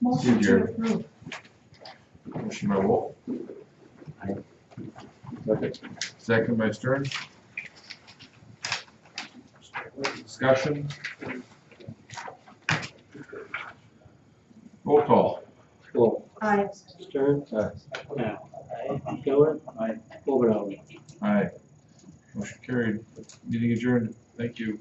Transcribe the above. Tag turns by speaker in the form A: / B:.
A: Motion
B: Did
A: to
B: your-
A: approve.
B: Motion by Wolf. Second. Second by Stern. Discussion. Roll call.
C: Wolf.
A: Aye.
C: Stern.
B: Aye.
C: Now. Miller. Aye. Overall.
B: Aye. Motion carried. Meeting adjourned. Thank you.